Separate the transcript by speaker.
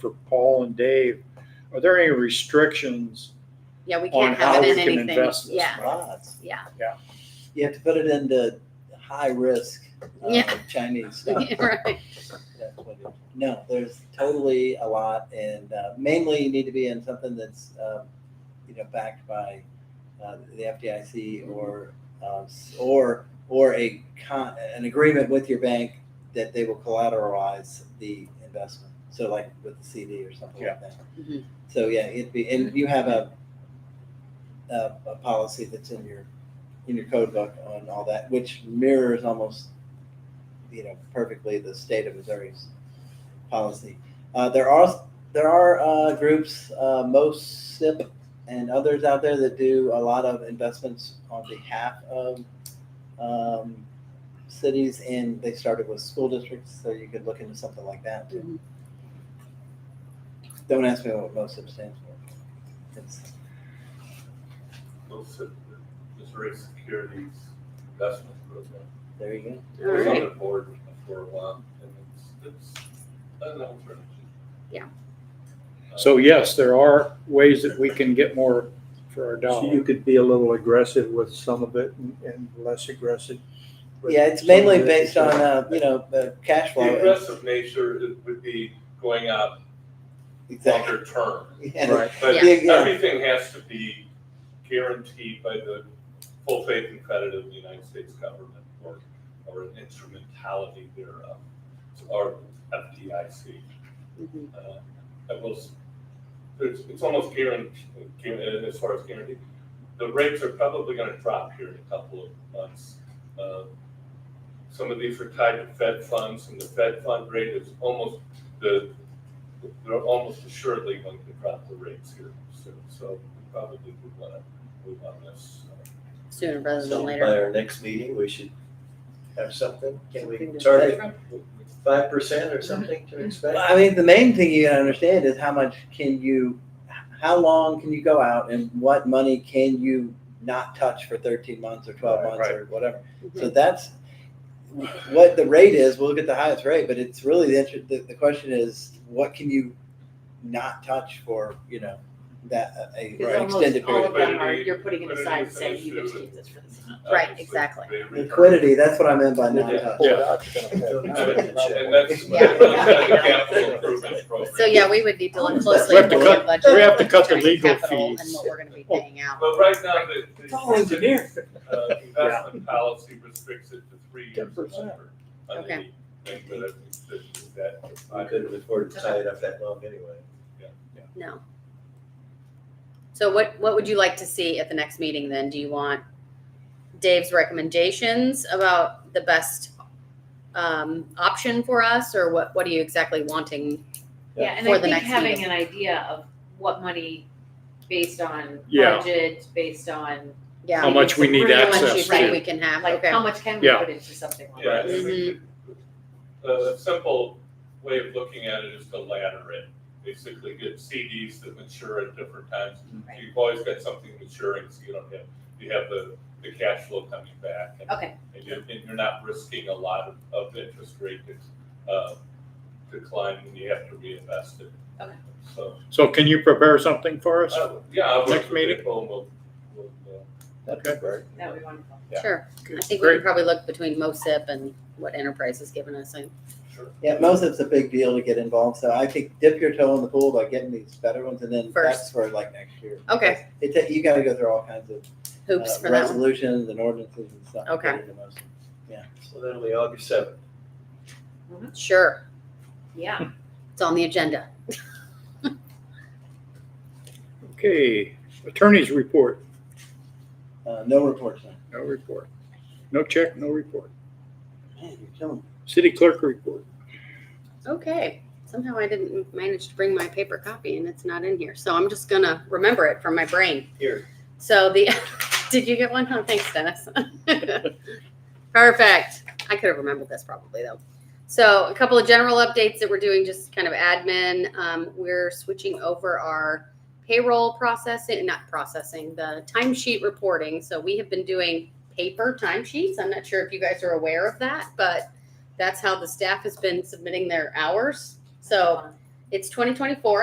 Speaker 1: for Paul and Dave, are there any restrictions
Speaker 2: Yeah, we
Speaker 1: on
Speaker 2: can't
Speaker 1: how
Speaker 2: have
Speaker 1: we
Speaker 2: it in
Speaker 1: can
Speaker 2: anything.
Speaker 1: invest this?
Speaker 2: Yeah,
Speaker 1: money?
Speaker 3: Lots.
Speaker 2: yeah.
Speaker 3: You have to put it into high risk uh,
Speaker 2: Yeah.
Speaker 3: Chinese stuff.
Speaker 2: Right.
Speaker 3: That's what it- No, there's totally a lot, and uh, mainly you need to be in something that's, um, you know, backed by uh, the FDIC or um, s- or or a con- an agreement with your bank that they will collateralize the investment. So like with the CD or something like that.
Speaker 2: Mhm.
Speaker 3: So yeah, it'd be and you have a, a a policy that's in your in your code book on all that, which mirrors almost you know perfectly the state of Missouri's policy. Uh, there are there are uh, groups, uh, most SIP and others out there that do a lot of investments on behalf of um, cities, and they started with school districts, so you could look into something like that too.
Speaker 2: Mhm.
Speaker 3: Don't ask me what most SIP stands for. It's
Speaker 4: Most of the Missouri Securities Investment Program.
Speaker 3: there you go.
Speaker 4: It was on
Speaker 2: Alright.
Speaker 4: the board for a while, and it's, it's an alternative.
Speaker 2: Yeah.
Speaker 1: So yes, there are ways that we can get more for our
Speaker 5: So you
Speaker 1: dollar.
Speaker 5: could be a little aggressive with some of it and- and less aggressive. with
Speaker 3: Yeah, it's
Speaker 5: some of
Speaker 3: mainly
Speaker 5: it.
Speaker 3: based on uh, you know the cash flow.
Speaker 4: The aggressive nature it would be going out
Speaker 3: exactly.
Speaker 4: longer term.
Speaker 3: Yeah.
Speaker 5: Right,
Speaker 4: But
Speaker 3: Yeah. Yeah.
Speaker 4: everything has to be guaranteed by the full faith and credit of the United States government or, or an instrumentality thereof, or FDIC.
Speaker 2: Mhm.
Speaker 4: Uh, I will, s- it's, it's almost guaranteed, uh, as far as guaranteed, the rates are probably gonna drop here in a couple of months. Uh, Some of these are tied to Fed funds, and the Fed fund rate is almost, the, they're almost assuredly going to drop the rates here soon, so we probably would wanna move on this. uh,
Speaker 2: Sooner rather than
Speaker 6: So
Speaker 2: later.
Speaker 6: by our next meeting, we should have something, can
Speaker 2: Something
Speaker 6: we
Speaker 2: to
Speaker 6: target five percent or something to expect?
Speaker 3: Mm-hmm. Well, I mean, the main thing you gotta understand is how much can you, how long can you go out and what money can you not touch for thirteen months or twelve
Speaker 5: Right,
Speaker 3: months or whatever? So
Speaker 7: Mm-hmm.
Speaker 2: Mhm.
Speaker 3: that's what the rate is. We'll get the highest rate, but it's really the, inter- the, the question is, what can you not touch for, you know, that, a
Speaker 7: Because
Speaker 3: a
Speaker 7: almost
Speaker 3: extended period
Speaker 7: all of
Speaker 3: of time?
Speaker 7: them are, you're putting it aside and saying, you get to keep this for the summer.
Speaker 2: Right,
Speaker 4: Obviously,
Speaker 2: exactly.
Speaker 4: they return.
Speaker 3: Liquidity, that's what I meant by not
Speaker 4: Yeah.
Speaker 3: touch.
Speaker 5: Pull it out, you're gonna
Speaker 6: Don't
Speaker 5: have-
Speaker 6: expect it.
Speaker 4: And that's,
Speaker 2: Yeah.
Speaker 4: that's the capital improvement program.
Speaker 2: So, yeah, we would need to look closely
Speaker 1: We
Speaker 2: at
Speaker 1: have to
Speaker 2: the
Speaker 1: cut-
Speaker 2: budget.
Speaker 1: we have to cut the
Speaker 2: return on
Speaker 1: legal
Speaker 2: capital And
Speaker 1: fees.
Speaker 2: what we're gonna be paying out.
Speaker 4: But right now, the. the-
Speaker 5: It's all engineering.
Speaker 4: uh, Investment policy restricts it to three years.
Speaker 5: 10%.
Speaker 4: longer on
Speaker 2: Okay.
Speaker 4: anything, but I think that- that-
Speaker 6: I couldn't afford to tie it up that long anyway.
Speaker 2: No. So what, what would you like to see at the next meeting then? Do you want Dave's recommendations about the best um, option for us or what, what are you exactly wanting?
Speaker 7: Yeah, and
Speaker 2: For
Speaker 7: I
Speaker 2: the
Speaker 7: think
Speaker 2: next
Speaker 7: having
Speaker 2: meeting.
Speaker 7: an idea of what money based on
Speaker 1: Yeah.
Speaker 7: budget, based on,
Speaker 1: How
Speaker 2: Yeah,
Speaker 1: much we need
Speaker 7: Pretty much
Speaker 2: how much you
Speaker 1: access
Speaker 2: think
Speaker 1: to.
Speaker 2: we can have,
Speaker 7: like,
Speaker 2: okay.
Speaker 7: how much can we
Speaker 1: Yeah.
Speaker 7: put into something like
Speaker 4: Yeah, I
Speaker 7: this?
Speaker 4: think
Speaker 7: Mm-hmm.
Speaker 4: the- a simple way of looking at it is to ladder it. Basically get CDs that mature at different times.
Speaker 7: Right.
Speaker 4: You've always got something maturing, so you don't have, you have the, the cash flow coming back. and-
Speaker 7: Okay.
Speaker 4: And you're, and you're not risking a lot of, of interest rate, uh, decline when you have to reinvest it.
Speaker 7: Okay.
Speaker 4: So,
Speaker 1: So can you prepare something for us?
Speaker 4: uh, yeah. I'll work
Speaker 1: Next
Speaker 4: with
Speaker 1: meeting?
Speaker 4: Nicole and We'll, we'll, uh,
Speaker 6: That'd be great.
Speaker 7: That would be wonderful.
Speaker 2: Sure. I think we
Speaker 1: Great.
Speaker 2: can probably look between MOSIP and what Enterprise has given us. I-
Speaker 4: Sure.
Speaker 3: Yeah, most of it's a big deal to get involved, so I think dip your toe in the pool by getting these better ones, and then that's
Speaker 2: First.
Speaker 3: for like next year.
Speaker 2: Okay.
Speaker 3: It, ta- you gotta go through all kinds of
Speaker 2: Hoops
Speaker 3: uh,
Speaker 2: for that one.
Speaker 3: resolutions and ordinances and stuff. to
Speaker 2: Okay.
Speaker 3: get into motion.
Speaker 6: So that'll be August seventh.
Speaker 2: Sure,
Speaker 7: Yeah,
Speaker 2: it's on the agenda.
Speaker 1: Okay, attorney's report,
Speaker 3: Uh, no reports, man.
Speaker 1: no report. No check, no report.
Speaker 3: Man, you're killing me.
Speaker 1: City clerk report.
Speaker 2: Okay, somehow I didn't manage to bring my paper copy and it's not in here, so I'm just gonna remember it from my brain.
Speaker 6: Here.
Speaker 2: So the, did you get one? Oh, thanks, Dennis. Perfect. I could have remembered this probably though. So a couple of general updates that we're doing, just kind of admin. Um, we're switching over our payroll processing, not processing, the timesheet reporting. So we have been doing paper timesheets. I'm not sure if you guys are aware of that, but that's how the staff has been submitting their hours. So It's twenty twenty-four.